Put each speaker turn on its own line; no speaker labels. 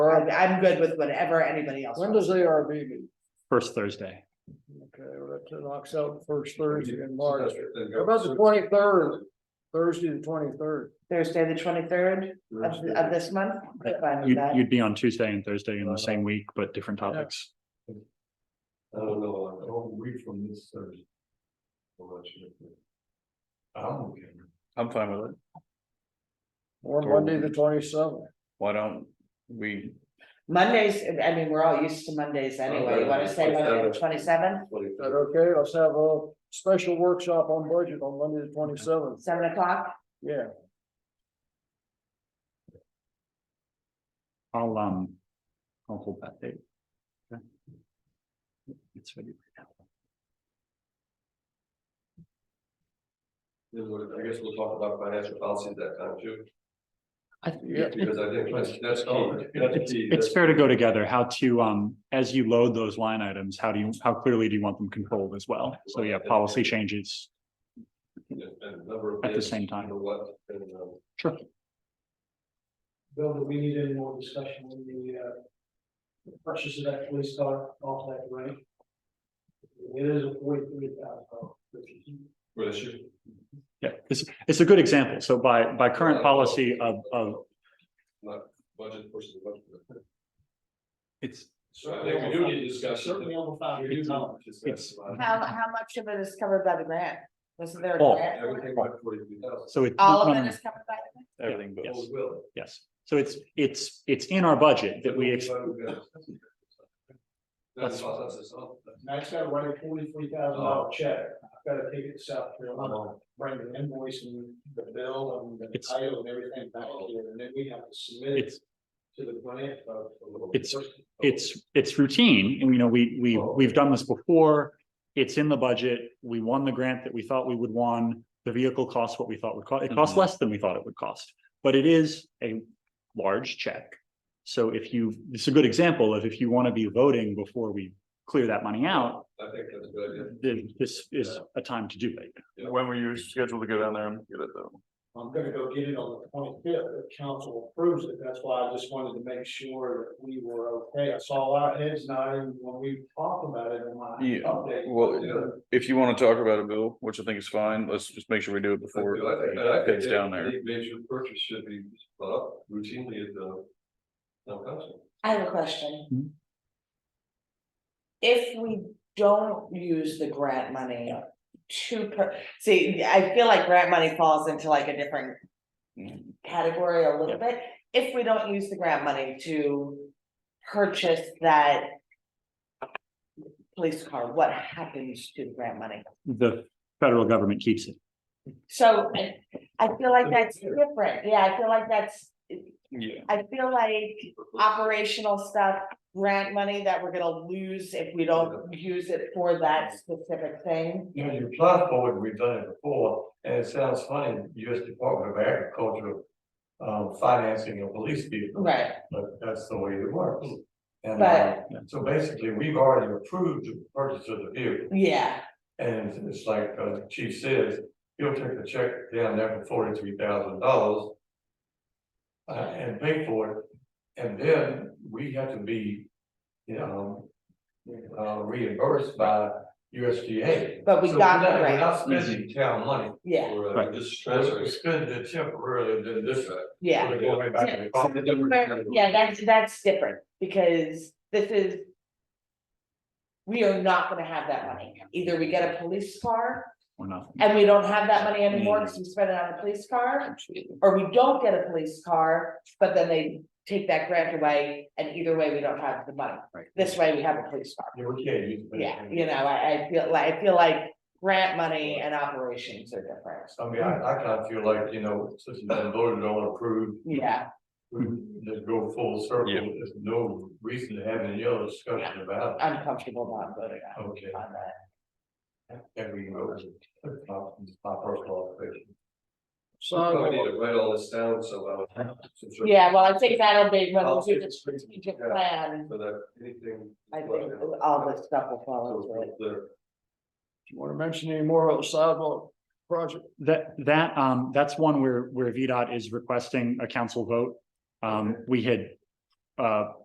or I'm good with whatever anybody else.
When
wants.
does ARB meet?
first Thursday.
Okay, well, that knocks out the first Thursday in March. How About the twenty-third, Thursday the twenty-third.
Thursday, the twenty-third of, of this month. I'm fine with
You'd,
that.
you'd be on Tuesday and Thursday in the same week, but different topics.
Oh, no, I don't read from this Thursday. I'll let you know. I'm okay.
I'm fine with it.
Or Monday the twenty-seventh.
Why don't we,
Mondays, I mean, we're all used to Mondays anyway. You wanna say Monday, the twenty-seventh,
Is that okay? Let's have a special workshop on budget on Monday the twenty-seventh.
seven o'clock?
Yeah,
I'll, um, I'll hold that date. Okay. It's ready.
Then we'll- I guess we'll talk about financial policy at that time too.
I-
Yeah.
Because I think that's, that's key. That's
It's,
key.
it's fair to go together, how to, um, as you load those line items, how do you, how clearly do you want them controlled as well? So yeah, policy changes,
That's- and a number of
At the
things,
same time.
you know what, and, um,
sure.
Bill, do we need any more discussion on the, uh, the purchase of that police car off that rate? It is a forty-three thousand dollars.
For this year.
Yeah, it's, it's a good example. So by, by current policy of, of,
Not budget versus budget.
it's,
So I think we do need to discuss.
Certainly over five
We do
years.
need to discuss
It's-
about it.
How, how much of it is covered by the grant? Wasn't there a
All.
grant?
Everything by forty-three thousand.
so it.
All of it is covered by the grant?
everything but,
Yes.
Will.
Yes, so it's, it's, it's in our budget that we, ex-
That's. Oh.
That's-
I just gotta write a forty-three thousand dollar check, I've gotta take it to South Carolina, bring the invoice and the bill and the
It's-
title and everything back
Oh.
here, and then we have to submit it
it's,
to the grant. uh,
It's-
Oh,
it's, it's routine, and you know, we, we, we've done this before. It's in the budget, we won the grant that we thought we would won, the vehicle costs what we thought would cost, it costs
Mhm.
less than we thought it would cost. But it is a large check. So if you, it's a good example of if you want to be voting before we clear that money out,
I think that's a good idea.
then this is a time to do it.
when were you scheduled to go down there and get it though?
I'm gonna go get it on the twenty-fifth, if council approves it, that's why I just wanted to make sure that we were okay, I saw our heads nodding when we talked about it in my
Yeah,
update.
well, If you want to talk about it, Bill, which I think is fine, let's just make sure we do it
I
before
do, I think- and I
it
think
gets down there.
any Major purchase should be brought up routinely at the. town council.
I have a
Hmm.
question. If we don't use the grant money to, per- see, I feel like grant money falls into like a different. Category a little bit, if we don't use the grant money to purchase that. Police car, what happens to the grant money?
The federal government keeps it.
So I, I feel like that's different, yeah, I feel like that's,
Yeah.
I feel like operational stuff, grant money that we're gonna lose if we don't use it for that specific thing.
You know, you apply for it, we've done it before, and it sounds funny, US Department of Agriculture. Um, financing a police vehicle,
Right,
but that's the way it works. And uh,
But-
so basically, we've already approved the purchase of the vehicle.
yeah,
And it's like uh, the Chief says, he'll take the check down there for forty-three thousand dollars. uh, and pay for it, and then we have to be, you know. Uh, reimbursed by USDA.
But we
So
got
we're not-
the
We're not
grant.
spending town money. uh,
yeah,
Right.
just transferring. Spend it temporarily, then this. uh,
yeah.
We're going back to the common-
Yeah, that's, that's different, because this is. We are not gonna have that money, either we get a police car
Or nothing.
and we don't have that money anymore, because we spent it on a police car. or we don't get a police car, but then they take that grant away, and either way, we don't have the money.
Right.
This way, we have a police car,
Yeah, we can't use. it.
yeah, you know, I, I feel like, I feel like grant money and operations are different,
I mean, I, I kind of feel like, you know, since it's been voted on, approved,
yeah,
We just go full circle,
Yeah.
there's no reason to have any other discussion about it.
I'm comfortable not voting on,
Okay,
on that.
and we know it's not- it's not personal opinion.
So
to write all this down, so.
Yeah, well, I think that'll be, when
I'll
we do
see
the
if it's reasonable,
strategic
yeah.
plan,
So that anything.
I think all this stuff will fall into it.
you want to mention any more about the sidewalk project?
That, that, um, that's one where, where VDOT is requesting a council vote. Um, we had, uh,